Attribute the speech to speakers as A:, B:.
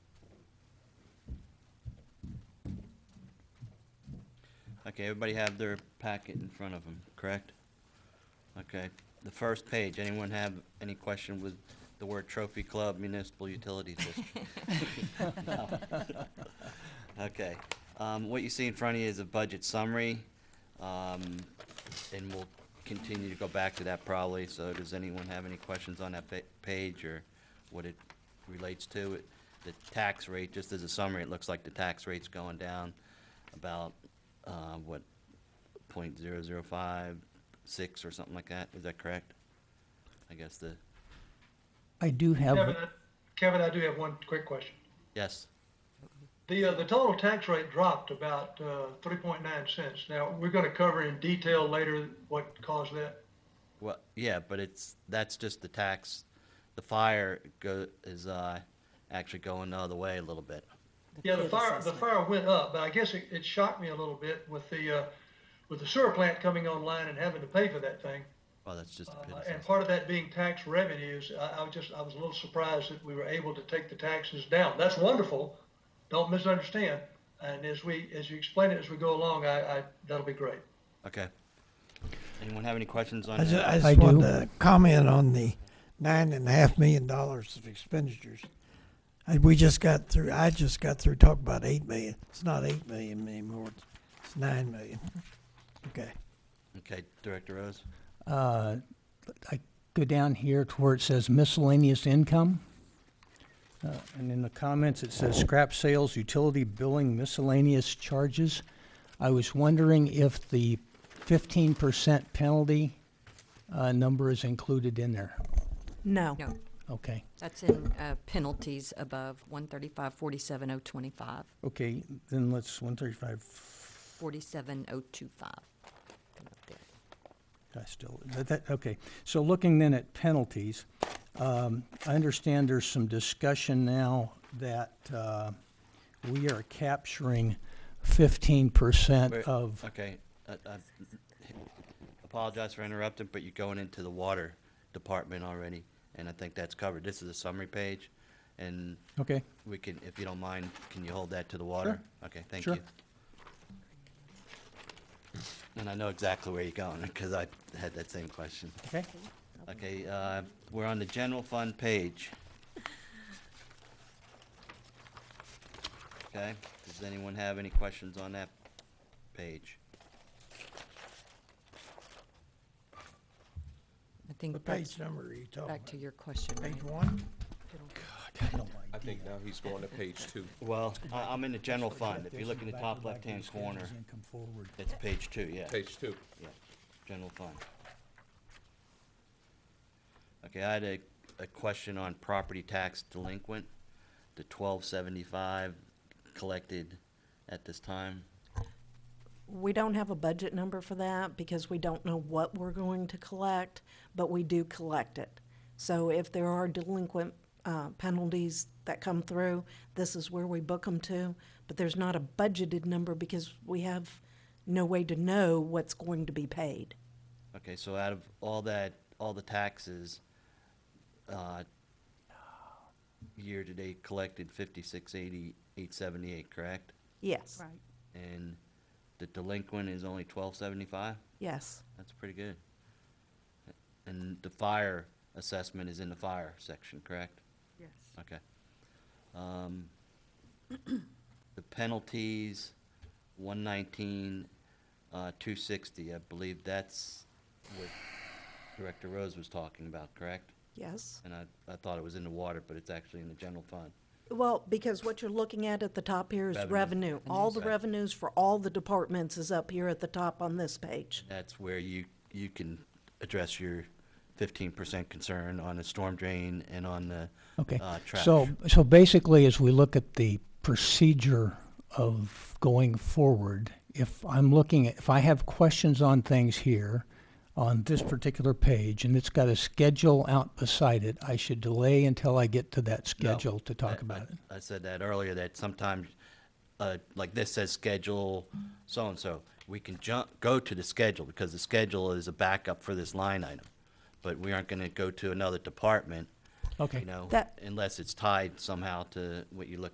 A: Okay, everybody have their packet in front of them, correct? Okay, the first page, anyone have any question with the word Trophy Club Municipal Utilities District? Okay, um, what you see in front of you is a budget summary, um, and we'll continue to go back to that probably, so does anyone have any questions on that pa- page or what it relates to? It- The tax rate, just as a summary, it looks like the tax rate's going down about, uh, what, point zero zero five, six or something like that, is that correct? I guess the,
B: I do
C: Kevin,
B: have,
C: I- Kevin, I do have one quick question.
A: yes,
C: The, uh, the total tax rate dropped about, uh, three point nine cents. Now, we're gonna cover in detail later what caused that.
A: well, yeah, but it's, that's just the tax, the fire go, is, uh, actually going the other way a little bit.
C: Yeah, the
D: code
C: fire, the
D: assessment.
C: fire went up, but I guess it, it shocked me a little bit with the, uh, with the sewer plant coming online and having to pay for that thing.
A: Well, Oh, that's just a
C: Uh,
A: pit
C: And
A: assessment.
C: part of that being tax revenues, I, I was just, I was a little surprised that we were able to take the taxes down. That's wonderful. Don't misunderstand. And as we, as you explain it as we go along, I, I, that'll be great.
A: Okay. Anyone have any questions on
E: I just,
A: that?
E: I
B: I
E: just wanted
B: do.
E: to comment on the nine and a half million dollars of expenditures. I, we just got through, I just got through talking about eight million. It's not eight million anymore, it's nine million. Okay.
A: Okay, Director Rose?
B: uh, I go down here to where it says miscellaneous income. Uh, And in the comments, it says scrap sales, utility billing, miscellaneous charges. I was wondering if the fifteen percent penalty, uh, number is included in there.
D: No.
F: No,
B: Okay,
F: that's in uh, penalties above 135, oh, 47025,
B: okay, then let's, one thirty-five,
F: 47025. oh, Come up there.
B: I still, that, that, okay. So looking then at penalties, um, I understand there's some discussion now that, uh, we are capturing fifteen percent
A: Wait,
B: of,
A: Okay, I, I apologize for interrupting, but you're going into the water department already, and I think that's covered. This is a summary page, and
B: okay,
A: we can, if you don't mind, can you hold that to the water? Okay, thank
B: Sure.
A: you. And I know exactly where you're going, because I had that same question.
B: okay?
A: Okay, uh, we're on the general fund page. Okay, does anyone have any questions on that page?
F: I think
E: What
F: that's
E: page number are you talking
F: back to
E: about?
F: your question, right?
E: Page one?
G: I think now he's going to page two.
A: Well, I, I'm in the general fund, if you look in the top left-hand corner,
B: Income forward.
A: it's page two, yeah,
G: Page two.
A: yeah, general fund. Okay, I had a, a question on property tax delinquent, the twelve seventy-five collected at this time.
D: We don't have a budget number for that because we don't know what we're going to collect, but we do collect it. So if there are delinquent uh, penalties that come through, this is where we book them to. But there's not a budgeted number because we have no way to know what's going to be paid.
A: Okay, so out of all that, all the taxes, uh, year-to-date collected fifty-six eighty, eight seventy-eight, correct?
D: Yes,
A: And the delinquent is only twelve seventy-five?
D: yes,
A: That's pretty good. And the fire assessment is in the fire section, correct?
F: Yes.
A: Okay. Um, The penalties, one nineteen, uh, two sixty, I believe that's what Director Rose was talking about, correct?
D: yes.
A: And I, I thought it was in the water, but it's actually in the general fund.
D: Well, because what you're looking at at the top here is
A: Revenue.
D: revenue. All the
A: Okay.
D: revenues for all the departments is up here at the top on this page.
A: That's where you, you can address your fifteen percent concern on the storm drain and on the,
B: Okay,
A: uh, trash.
B: so, so basically, as we look at the procedure of going forward, if I'm looking at, if I have questions on things here, on this particular page, and it's got a schedule out beside it, I should delay until I get to that schedule to talk
A: I-
B: about it.
A: I I said that earlier, that sometimes, uh, like this says schedule so-and-so. We can jump, go to the schedule because the schedule is a backup for this line item. But we aren't gonna go to another department,
B: Okay.
A: you know,
D: That-
A: unless it's tied somehow to what you look